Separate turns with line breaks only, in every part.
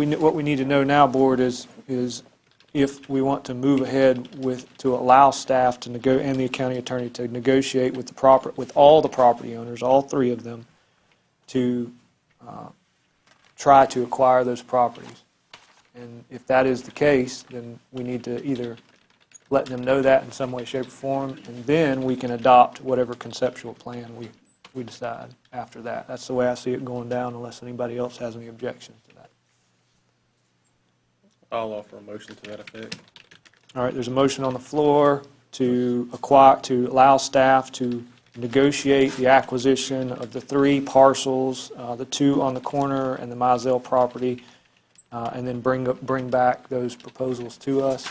We, kn- what we need to know now, Board, is, is if we want to move ahead with, to allow staff to nego, and the county attorney to negotiate with the proper, with all the property owners, all three of them, to uh, try to acquire those properties. And if that is the case, then we need to either let them know that in some way, shape, or form, and then we can adopt whatever conceptual plan we, we decide after that. That's the way I see it going down, unless anybody else has any objections to that.
I'll offer a motion to that effect.
All right, there's a motion on the floor to acquire, to allow staff to negotiate the acquisition of the three parcels, uh, the two on the corner and the Mizell property, uh, and then bring, up- bring back those proposals to us,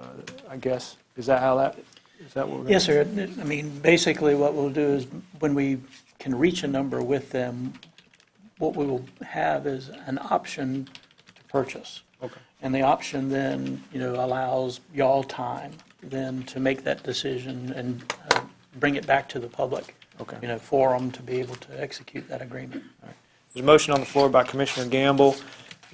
uh, I guess. Is that how that, is that what we're?
Yes, sir. I mean, basically, what we'll do is, when we can reach a number with them, what we will have is an option to purchase.
Okay.
And the option then, you know, allows y'all time then to make that decision and uh, bring it back to the public.
Okay.
You know, for them to be able to execute that agreement.
There's a motion on the floor by Commissioner Gamble.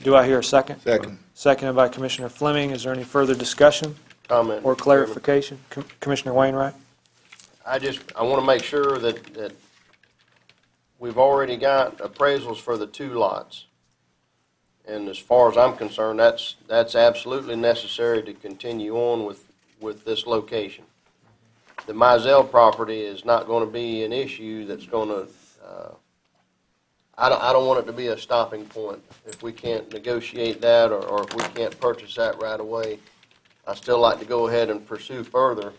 Do I hear a second?
Second.
Seconded by Commissioner Fleming. Is there any further discussion
Comment.
or
Mr. Chairman.
clarification? Com- Commissioner Wainwright?
I just, I want to make sure that, that we've already got appraisals for the two lots. And as far as I'm concerned, that's, that's absolutely necessary to continue on with, with this location. The Mizell property is not going to be an issue that's going to, uh, I don't, I don't want it to be a stopping point. If we can't negotiate that, or, or if we can't purchase that right away, I'd still like to go ahead and pursue further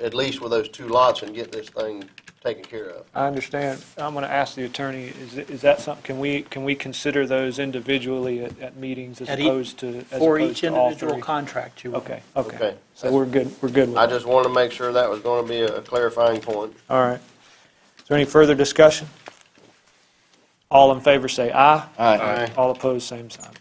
at least with those two lots and get this thing taken care of.
I understand. I'm going to ask the attorney, is it- is that something, can we, can we consider those individually at at meetings as
At each-
opposed to, as
For
opposed
each
to all
individual
three?
contract you.
Okay, okay.
Okay.
So we're good, we're good with
I
that.
just wanted to make sure that was going to be a clarifying point.
All right. Is there any further discussion? All in favor, say aye.
Aye.
All opposed, same sign.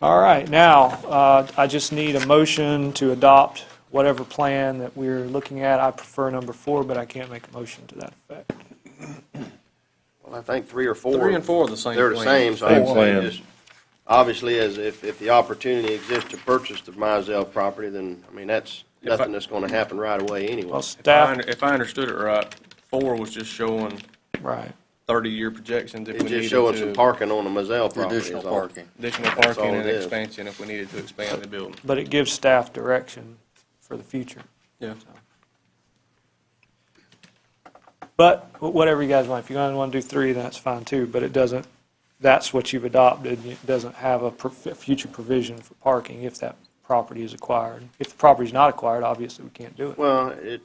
All right, now, uh, I just need a motion to adopt whatever plan that we're looking at. I prefer number four, but I can't make a motion to that effect.
Well, I think three or four.
Three and four are the same
They're the
plan.
same, so I
Same
would say
plan.
just, obviously, as if, if the opportunity exists to purchase the Mizell property, then, I mean, that's
If I-
nothing that's going to happen right away anyway.
Well,
If I,
staff,
under- if I understood it right, four was just showing
right.
thirty-year projections if we
It's
needed
just showing some
to.
parking on the Mizell property. is
Additional
all.
parking.
Additional
all
parking
it
and
is.
expansion if we needed to expand the building.
But it gives staff direction for the future.
Yeah.
But wh- whatever you guys want, if you guys want to do three, then that's fine too, but it doesn't, that's what you've adopted, it doesn't have a pro- future provision for parking if that property is acquired. If the property's not acquired, obviously we can't do it.
Well, it,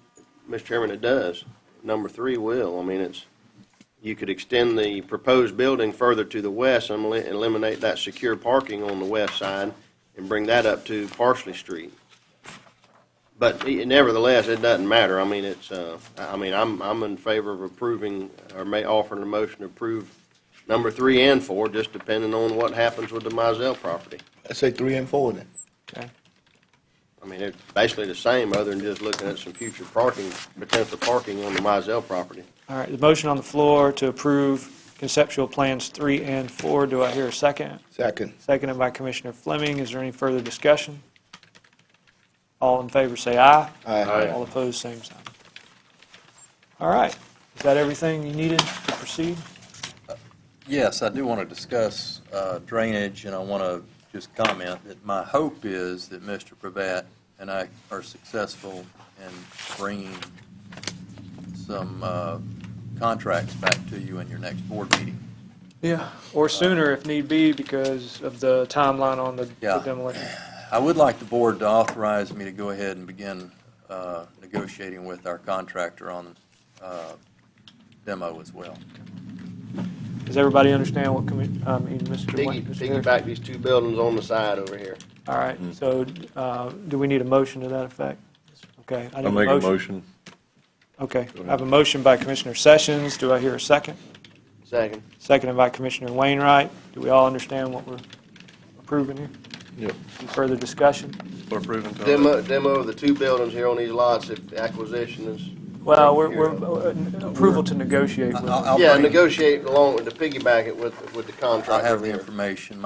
Mr. Chairman, it does. Number three will. I mean, it's, you could extend the proposed building further to the west and eli- eliminate that secure parking on the west side and bring that up to Parsley Street. But e- nevertheless, it doesn't matter. I mean, it's, uh, I I mean, I'm, I'm in favor of approving, or may, offering a motion to approve number three and four, just depending on what happens with the Mizell property.
I say three and four then.
Okay.
I mean, it's basically the same, other than just looking at some future parking, potential parking on the Mizell property.
All right, the motion on the floor to approve conceptual plans three and four, do I hear a second?
Second.
Seconded by Commissioner Fleming, is there any further discussion? All in favor, say aye.
Aye.
All opposed, same sign. All right, is that everything you needed to proceed?
Yes, I do want to discuss uh, drainage, and I want to just comment that my hope is that Mr. Pravat and I are successful in bringing some uh, contracts back to you in your next board meeting.
Yeah, or sooner if need be because of the timeline on the the
Yeah.
demolition.
I would like the board to authorize me to go ahead and begin uh, negotiating with our contractor on uh, demo as well.
Does everybody understand what, commi- I mean, Mr.
Piggy-
Wayne? Mr. Harris?
Piggyback these two buildings on the side over here.
All right,
Mm-hmm.
so uh, do we need a motion to that effect? Okay. I need
I'll make a motion.
Okay, I have a motion by Commissioner Sessions. Do I hear a second?
Second.
Seconded by Commissioner Wainwright. Do we all understand what we're approving here?
Yep.
Any further discussion?
We're approving to.
Demo, demo of the two buildings here on these lots, if the acquisition is
Well, we're, we're, uh, approval to negotiate with.
I'll- I'll
Yeah,
bring-
negotiate along with the piggyback it with, with the
I
contractor
have the
here.
information.